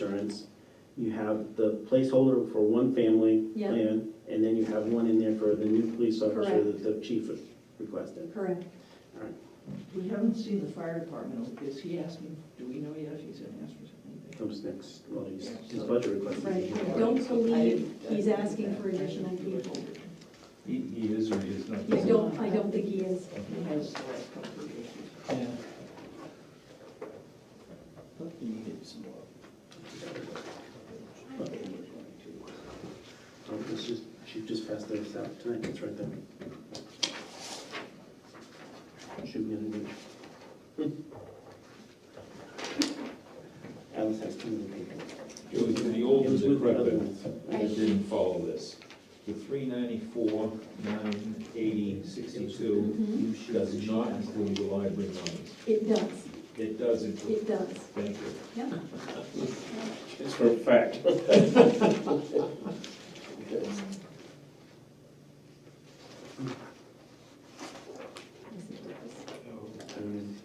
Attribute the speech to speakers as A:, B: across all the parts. A: insurance. You have the placeholder for one family
B: Yeah.
A: plan, and then you have one in there for the new police officer
B: Correct.
A: that the chief requested.
B: Correct.
C: We haven't seen the fire department, is he asking, do we know yet if he's gonna ask for something?
A: Comes next, well, he's, his budget request. is-
B: Right, I don't believe he's asking for additional people.
D: He, he is or he is not.
B: I don't, I don't think he is.
C: He has the last couple of issues.
D: Yeah.
A: Oh, Um, It's just, she just passed those out tonight, it's right there. Should be underneath. Alice has too many people.
D: It was in the old
A: It was with the other
D: decrepit,
A: ones.
D: and it didn't follow this. The three ninety-four, nine eighty, sixty-two
A: Mm-hmm.
B: Mhm.
D: does not include the library monies.
B: It does,
D: It does include,
B: it does.
D: thank you.
B: Yeah.
A: It's for a fact. Um,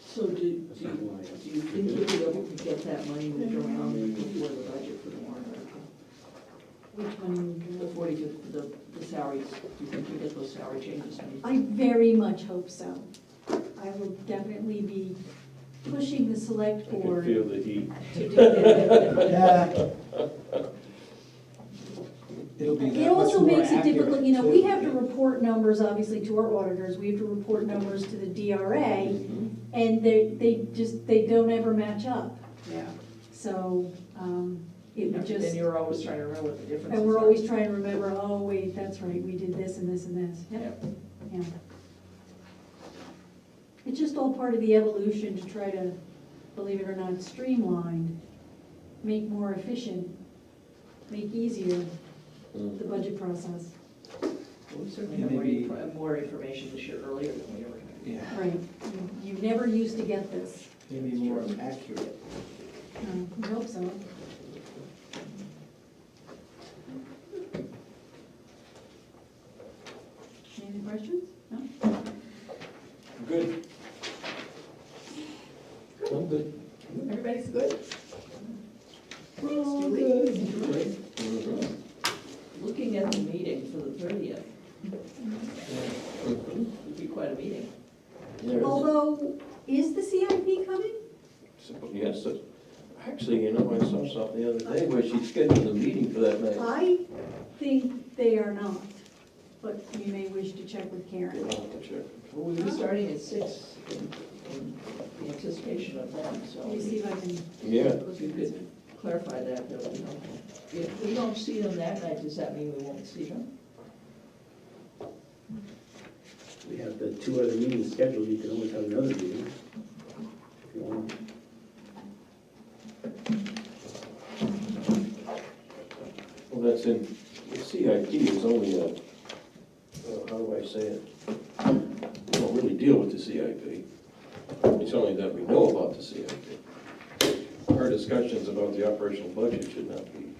C: So do,
A: That's
C: do
A: not
C: you-
A: why.
C: do you think you'll be able to get that money moved around before the budget for the warrant article?
B: Which one?
C: The forty, the, the salaries, do you think you'll get those salary changes made?
B: I very much hope so. I will definitely be pushing the select
D: I can
B: board
D: feel the heat.
B: to do that.
E: Yeah. It'll be
B: It
E: that much
B: also
E: more
B: makes it difficult,
E: accurate.
B: you know, we have to report numbers, obviously, to our auditors, we have to report numbers to the DRA,
E: Mm-hmm.
B: and they, they just, they don't ever match up.
C: Yeah.
B: So, um, it would just.
C: And you're always trying to remember what the difference is.
B: And we're always trying to remember, oh, wait, that's right, we did this and this and this. Yep, yeah. It's just all part of the evolution to try to, believe it or not, streamline, make more efficient, make easier the budget process.
C: We certainly have more, inf- more information this year earlier than we ever had.
E: Yeah,
B: Right, you you never used to get this.
E: maybe more accurate.
B: Uh, We hope so. Any questions? No?
D: Good. I'm good.
C: Everybody's good?
E: Well,
C: Julie.
E: good.
C: Looking at the meeting for the thirtieth, it'd be quite a meeting.
F: There's,
B: Although, is the CIP coming?
F: yes, it- actually, you know, I saw something the other day where she scheduled a meeting for that night.
B: I think they are not, but you may wish to check with
F: We'll
B: Karen.
F: have to check.
C: Well, we were starting at six in in anticipation of them, so
B: Let me see
C: if
B: if I can.
F: Yeah,
C: you could clarify that, that would be helpful. If we don't see them that night, does that mean we won't see them?
A: We have the two other meetings scheduled, you can always have another meeting. if you want.
F: well, that's in, the CIP is only a, well, how do I say it? We don't really deal with the CIP. It's only that we know about the CIP. Our discussions about the operational budget should not be,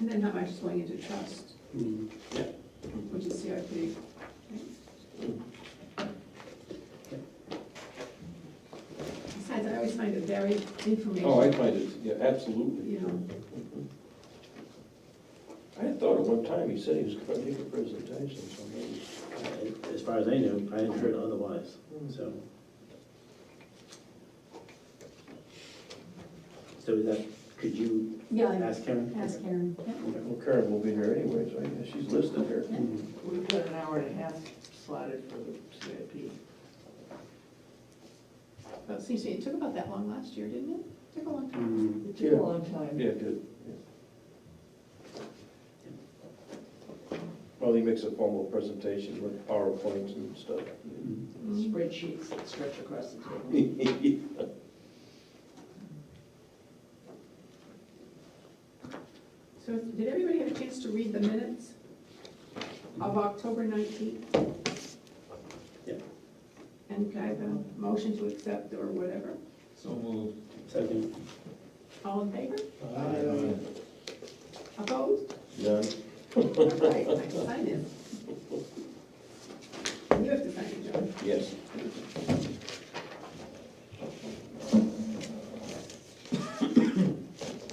G: And then how much is going into trust,
A: Hmm.
G: which is CIP? Besides, I always find it very
F: oh, I
G: informational,
F: find it, yeah, absolutely. Mm-hmm.
G: you know,
F: I thought at one time he said he was gonna make a presentation, so maybe.
A: Uh, As far as I know, I hadn't heard otherwise, so. So is that, could you
B: Yeah, I-
A: ask Karen?
B: ask Karen.
A: Okay.
F: Well, Karen will be here anyway, so I guess she's listed here.
A: Hmm.
C: We've got an hour and a half slotted for the CIP.
G: well, it seems to me it took about that long last year, didn't it? Took a long time.
A: Hmm.
C: It took a long time.
F: Yeah, it did. Well, he makes a formal presentation with PowerPoints and stuff.
A: Hmm.
C: Spreadsheets that stretch across the table.
G: So did everybody have a chance to read the minutes of October 19th?
A: Yeah.
G: And can I have a motion to accept or whatever?
D: So moved.
A: Second,
G: All in favor?
E: Uh,
G: Opposed?
F: None?
G: All right, I can sign it. You have to sign it, John.
F: Yes.